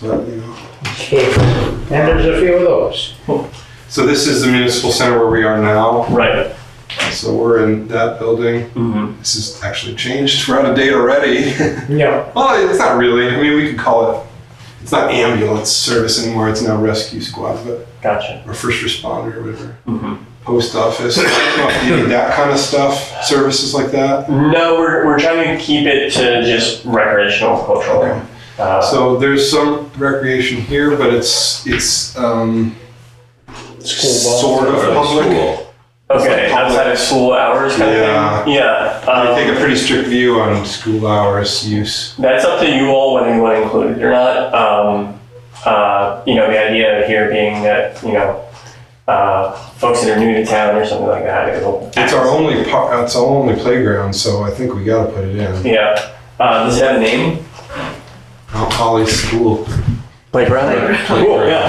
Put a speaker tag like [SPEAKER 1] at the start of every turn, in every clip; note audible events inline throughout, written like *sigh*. [SPEAKER 1] But, you know,
[SPEAKER 2] And there's a few of those.
[SPEAKER 1] So this is the municipal center where we are now.
[SPEAKER 3] Right.
[SPEAKER 1] So we're in that building.
[SPEAKER 3] Mm-hmm.
[SPEAKER 1] This is actually changed. We're out of date already. *laughs*
[SPEAKER 2] No,
[SPEAKER 1] well, it's not really. I mean, we could call it. It's not ambulance service anymore. It's now rescue squad, but
[SPEAKER 3] Gotcha.
[SPEAKER 1] or first responder, or whatever.
[SPEAKER 3] Mhm.
[SPEAKER 1] Post office, you know, if you need that kind of stuff. Services like that.
[SPEAKER 3] No, we're, we're trying to keep it to just recreational cultural.
[SPEAKER 1] Okay.
[SPEAKER 3] Uh,
[SPEAKER 1] So there's some recreation here, but it's it's um,
[SPEAKER 2] school
[SPEAKER 1] sort of public.
[SPEAKER 3] okay,
[SPEAKER 1] public-
[SPEAKER 3] outside of school hours kind
[SPEAKER 1] Yeah.
[SPEAKER 3] of thing? Yeah.
[SPEAKER 1] I
[SPEAKER 3] Um,
[SPEAKER 1] take a pretty strict view on school hours use.
[SPEAKER 3] that's up to you all whether you want to include it or not. Um, uh, you know, the idea here being that, you know, uh, folks that are new to town or something like that. It'll
[SPEAKER 1] It's our only par- it's our only playground, so I think we got to put it in.
[SPEAKER 3] Yeah. Uh, does it have a name?
[SPEAKER 1] Mount Holly School.
[SPEAKER 3] Playground? Cool, yeah.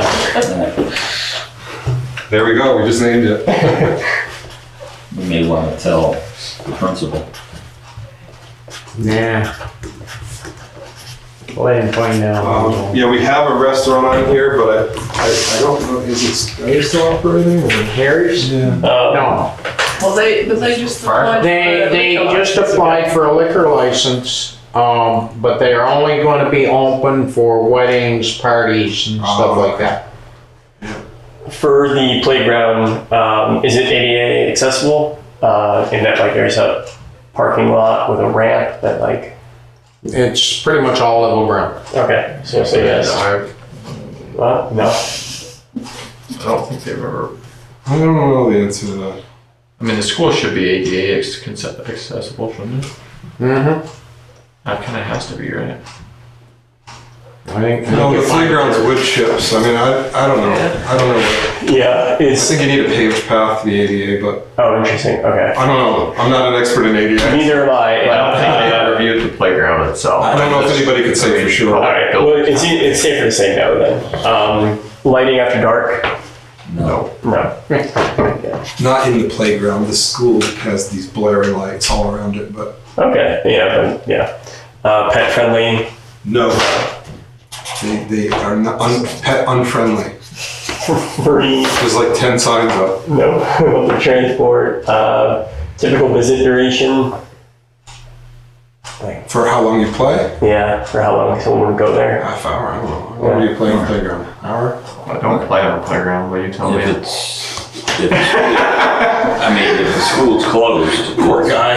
[SPEAKER 1] There we go. We just named it.
[SPEAKER 4] We may want to tell the principal.
[SPEAKER 2] ball. Nah. Let him find
[SPEAKER 1] Um,
[SPEAKER 2] out.
[SPEAKER 1] yeah, we have a restaurant on here, but I, I, I don't know. Is it are they still operating? Or?
[SPEAKER 2] Harry's?
[SPEAKER 1] Yeah.
[SPEAKER 3] Uh,
[SPEAKER 2] No,
[SPEAKER 5] Well, they, but they just applied.
[SPEAKER 2] they, they just applied for a liquor license, um, but they are only gonna be open for weddings, parties
[SPEAKER 1] Oh.
[SPEAKER 2] and stuff like that.
[SPEAKER 3] For the playground, um, is it ADA accessible? Uh, in that like there's a parking lot with a ramp that like,
[SPEAKER 2] It's pretty much all level ground.
[SPEAKER 3] okay, so say yes.
[SPEAKER 2] I-
[SPEAKER 3] Well, no.
[SPEAKER 6] I don't think they've ever.
[SPEAKER 1] I don't know the answer to that.
[SPEAKER 6] I mean, the school should be ADA ex- conce- accessible, shouldn't it?
[SPEAKER 2] Mhm.
[SPEAKER 6] That kind of has to be right.
[SPEAKER 2] I think.
[SPEAKER 1] No, the playground's wood chips. I mean, I, I don't know. I don't know. What,
[SPEAKER 3] Yeah,
[SPEAKER 1] I
[SPEAKER 3] it's,
[SPEAKER 1] think you need a paved path to the ADA, but
[SPEAKER 3] oh, interesting, okay.
[SPEAKER 1] I don't know. I'm not an expert in ADA.
[SPEAKER 3] Neither am I.
[SPEAKER 6] I don't think
[SPEAKER 3] Uh,
[SPEAKER 6] they have reviewed the playground itself.
[SPEAKER 1] I don't know if anybody could say for sure.
[SPEAKER 3] *laughs*
[SPEAKER 6] All
[SPEAKER 3] All
[SPEAKER 6] right,
[SPEAKER 3] right. Well, it's, it's safer to say no then. Um, lighting after dark?
[SPEAKER 4] No.
[SPEAKER 3] No.
[SPEAKER 1] Not in the playground. The school has these blaring lights all around it, but
[SPEAKER 3] Okay. Yeah. But, yeah. Uh, pet friendly. *laughs*
[SPEAKER 1] no. They, they are not un, pet unfriendly.
[SPEAKER 3] Free.
[SPEAKER 1] There's like 10 signs up.
[SPEAKER 3] No. *laughs* Public transport. Uh, typical visit duration.
[SPEAKER 1] For how long you play?
[SPEAKER 3] Yeah. For how long someone would go there?
[SPEAKER 1] Half hour, I don't know. How long do you play on the playground? Hour?
[SPEAKER 6] I don't play on the playground, but you tell me.
[SPEAKER 4] If it's, if it's, I mean, if the school's closed.
[SPEAKER 1] Poor guy.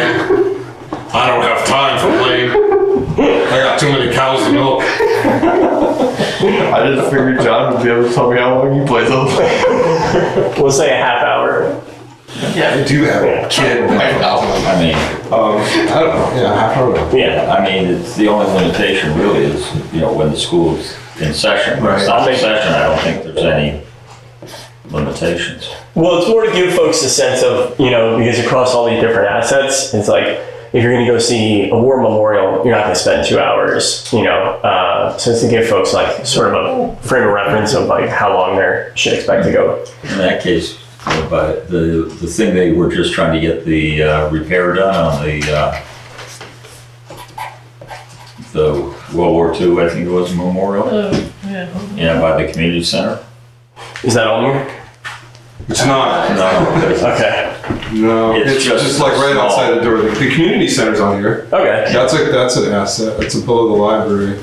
[SPEAKER 1] I don't have time for playing. I got too many cows to milk.
[SPEAKER 6] I just figured John would be able to tell me how long he plays on the playground.
[SPEAKER 3] We'll say a half hour.
[SPEAKER 1] I do have a kid.
[SPEAKER 4] I know, I mean,
[SPEAKER 1] Um, I don't know. Yeah, half hour.
[SPEAKER 3] Yeah.
[SPEAKER 4] I mean, it's, the only limitation really is, you know, when the school's in session. When
[SPEAKER 1] Right.
[SPEAKER 4] it's not in session, I don't think there's any limitations.
[SPEAKER 3] Well, it's more to give folks a sense of you know because across all these different assets, it's like. If you're going to go see a war memorial, you're not going to spend two hours, you know. Uh, so it's to give folks like sort of a frame of reference of like how long they should expect to go
[SPEAKER 4] In that case, you know, but the, the thing they were just trying to get the uh, repair done on the, uh, the World War II, I think it was memorial,
[SPEAKER 5] Oh, yeah.
[SPEAKER 4] yeah, by the community center.
[SPEAKER 3] Is that on there?
[SPEAKER 1] It's not.
[SPEAKER 4] No, there's-
[SPEAKER 3] Okay.
[SPEAKER 1] No,
[SPEAKER 4] It's
[SPEAKER 1] it's, just,
[SPEAKER 4] just
[SPEAKER 1] like right
[SPEAKER 4] small.
[SPEAKER 1] outside the door. The, the community center's on here.
[SPEAKER 3] Okay.
[SPEAKER 1] That's a that's an asset. That's above the library.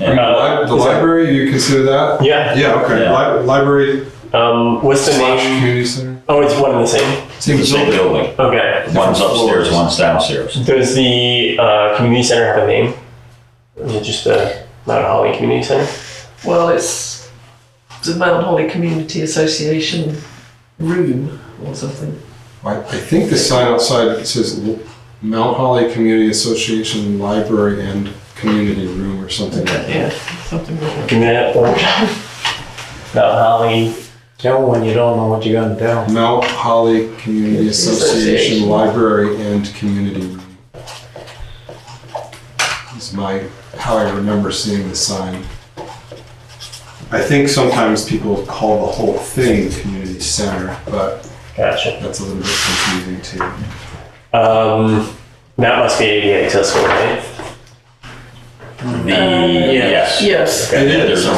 [SPEAKER 4] and-
[SPEAKER 1] Li-
[SPEAKER 3] Uh,
[SPEAKER 1] the
[SPEAKER 3] is that-
[SPEAKER 1] library, you consider that?
[SPEAKER 3] Yeah.
[SPEAKER 1] Yeah. Okay.
[SPEAKER 4] Yeah.
[SPEAKER 1] Li- library
[SPEAKER 3] Um, what's the
[SPEAKER 1] slash
[SPEAKER 3] name?
[SPEAKER 1] community center.
[SPEAKER 3] Oh, it's one and the same.
[SPEAKER 1] Same
[SPEAKER 4] It's a big
[SPEAKER 1] building.
[SPEAKER 4] building.
[SPEAKER 3] Okay.
[SPEAKER 4] One's upstairs, one's downstairs.
[SPEAKER 3] Does the uh, community center have a name? Is it just the Mount Holly Community Center?
[SPEAKER 5] Well, it's the Mount Holly Community Association room or something.
[SPEAKER 1] I, I think the sign outside says L- Mount Holly Community Association Library and Community Room or something. like that.
[SPEAKER 5] Yeah, something like that.
[SPEAKER 3] Give me that one. Mount Holly.
[SPEAKER 2] Tell one you don't know what you're gonna tell.
[SPEAKER 1] Mount Holly Community Association
[SPEAKER 5] Association.
[SPEAKER 1] Library and Community Room. Is my, how I remember seeing the sign. I think sometimes people call the whole thing community center, but
[SPEAKER 3] Gotcha.
[SPEAKER 1] that's a little bit confusing too.
[SPEAKER 3] Um, that must be ADA accessible, right?
[SPEAKER 5] The, yes.
[SPEAKER 7] Yes.
[SPEAKER 5] Okay,
[SPEAKER 4] It
[SPEAKER 5] Uh, yeah,
[SPEAKER 2] Mm,
[SPEAKER 4] is.
[SPEAKER 5] there's a